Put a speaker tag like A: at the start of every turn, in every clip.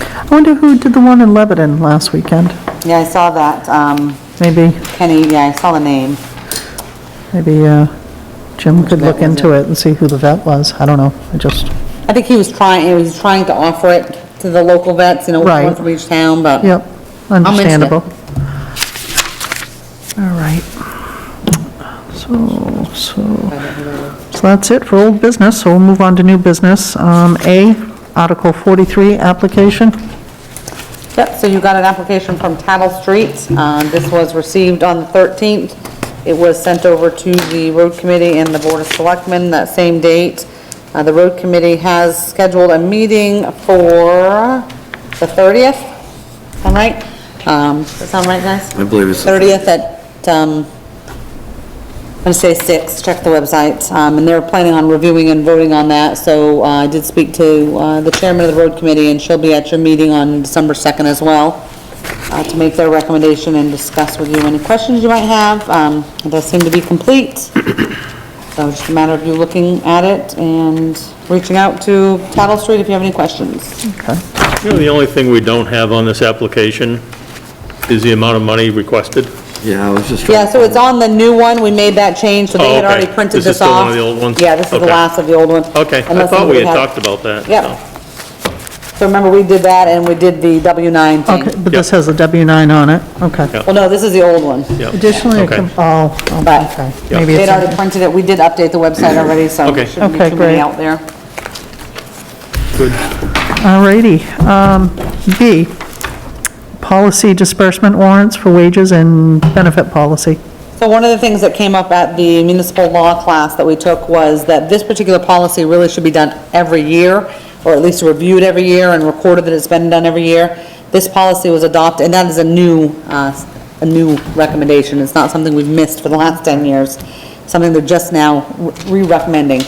A: I wonder who did the one in Lebanon last weekend?
B: Yeah, I saw that, um,
A: Maybe,
B: Kenny, yeah, I saw the name.
A: maybe uh, Jim could
B: vet
A: look
B: was
A: into it and see who the vet was. I don't know, I just,
B: I think he was trying, he was trying to offer it to the local vets, you know, one
A: Right.
B: from each town, but.
A: yep,
B: mention it.
A: understandable. All right. So, so, so that's it for old business, so we'll move on to new business. Um, A, Article 43, application.
B: Yep, so you got an application from Tattle Street. Uh, This was received on the 13th. It was sent over to the road committee and the board of selectmen that same date. Uh, The road committee has scheduled a meeting for the 30th, am I right? Um, Does that sound right, guys?
C: I believe it's the
B: 30th at, um, I'm gonna say six, check the website, um, and they're planning on reviewing and voting on that, so, uh, I did speak to, uh, the chairman of the road committee, and she'll be at your meeting on December second as well, uh, to make their recommendation and discuss with you any questions you might have, um, it does seem to be complete, so it's just a matter of you looking at it and reaching out to Tattle Street if you have any questions.
D: You know, the only thing we don't have on this application is the amount of money requested.
C: Yeah, I was just
B: Yeah,
C: trying,
B: so it's on the new one, we made that change, so they
D: Oh,
B: had already
D: okay.
B: printed
D: Is this
B: this
D: still one
B: off.
D: of the old ones?
B: Yeah, this is the
D: Okay.
B: last of the old one.
D: Okay, I
B: Unless
D: thought we
B: somebody
D: had talked about that.
B: Yep. So remember, we did that and we did the W-9
A: Okay,
B: thing.
A: but this
D: Yep.
A: has a W-9 on it, okay.
D: Yep.
B: Well, no, this is the old one,
D: so, yeah,
A: Additionally, it
D: okay.
A: com- oh,
B: But-
A: oh, okay.
D: Yep.
A: Maybe
B: they'd
A: it's
B: already
A: a-
B: printed it, we did update the website already, so
D: Okay.
B: there shouldn't be
A: Okay,
B: too many
A: great.
B: out there.
A: All righty. Um, B, policy disbursement warrants for wages and benefit policy.
B: So one of the things that came up at the municipal law class that we took was that this particular policy really should be done every year, or at least reviewed every year and recorded that it's been done every year. This policy was adopted, and that is a new, uh, a new recommendation. It's not something we've missed for the last 10 years, something they're just now re-recommending.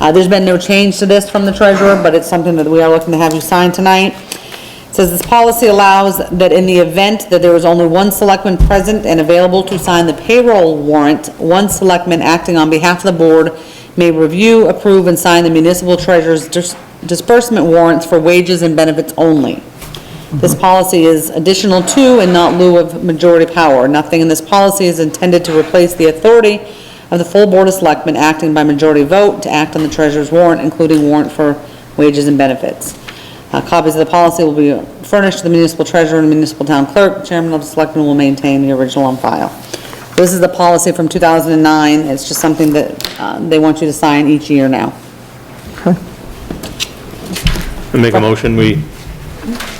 B: Uh, There's been no change to this from the treasurer, but it's something that we are looking to have you sign tonight. It Says this policy allows that in the event that there is only one selectman present and available to sign the payroll warrant, one selectman acting on behalf of the board may review, approve, and sign the municipal treasurer's dis- disbursement warrants for wages and benefits only. This policy is additional to and not lieu of majority power. Nothing in this policy is intended to replace the authority of the full Board of Selectmen acting by majority vote to act on the treasurer's warrant, including warrant for wages and benefits. Uh, Copies of the policy will be furnished to the municipal treasurer and municipal town clerk. Chairman of the Selectmen will maintain the original on file. This is the policy from 2009. It's just something that uh, they want you to sign each year now.
D: I Make a motion, we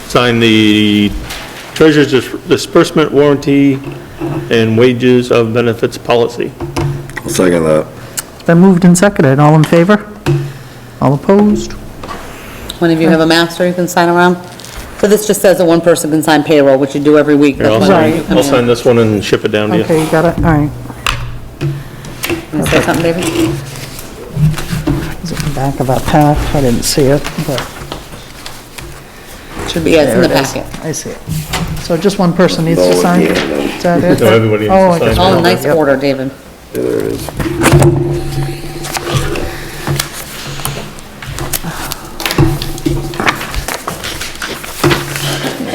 D: sign the treasurer's dis- disbursement warranty and wages of benefits policy.
C: I'll second that.
A: Been moved and seconded. All in favor? All opposed?
B: One of you have a master you can sign around? So this just says that one person can sign payroll, which you do every week.
D: Here, I'll
B: That's why
D: sign,
B: you come
D: I'll
B: in.
D: sign this one and ship it down to you.
A: Okay, you got it, all right.
B: Can I say something, David?
A: Is it in the back of our pack? I didn't see it, but
B: Should be, yeah, it's in the
A: There it is.
B: packet.
A: I see it. So just one person needs to
C: No,
A: sign?
C: yeah, no.
A: Is that it?
D: No, everybody needs to
A: Oh, I
D: sign
A: guess-
D: it.
B: Oh, nice
A: Yep.
B: order, David.
C: Yeah, there it is.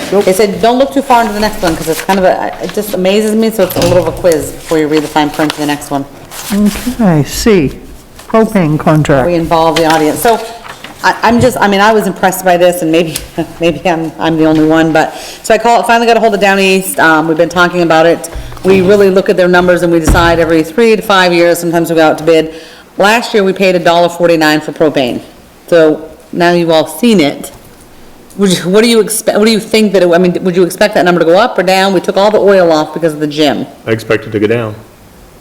B: They said, don't look too far into the next one, because it's kind of a, it just amazes me, so it's a little of a quiz before you read the fine print to the next one.
A: Okay, C, propane contract.
B: we involve the audience. So I, I'm just, I mean, I was impressed by this and maybe, maybe I'm, I'm the only one, but, so I call, finally got a hold of Down East, um, we've been talking about it. We really look at their numbers and we decide every three to five years, sometimes we go out to bid. Last year, we paid a dollar forty-nine for propane. So now you've all seen it. Would you, what do you expect, what do you think that, it- I mean, would you expect that number to go up or down? We took all the oil off because of the gym.
D: I expect it to go down,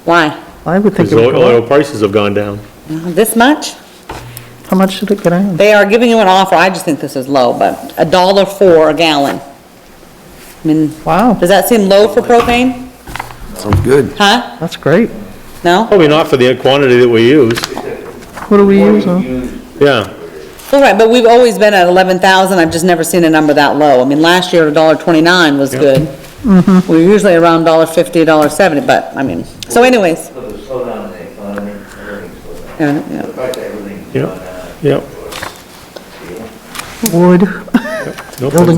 B: Why?
A: I would think
D: because
A: it would
D: oil
A: go up.
D: oil prices have gone down.
B: This much?
A: How much did it get out?
B: They are giving you an offer, I just think this is low, but a dollar four a gallon. I mean,
A: Wow,
B: does that seem low for propane?
C: Sounds good.
B: Huh?
A: that's great.
B: No?
D: Probably not for the quantity that we use,
A: What do we use on?
D: yeah.
B: All right, but we've always been at eleven thousand, I've just never seen a number that low. I mean, last year, a dollar twenty-nine was good. We're usually around dollar fifty, dollar seventy, but, I mean, so anyways.
E: So the slowdown in the economy, everything's slowed down.
B: yeah, yeah.
E: The fact that everything's
D: Yeah.
E: gone down.
D: Yep.
A: Wood.
D: Nope.
A: Building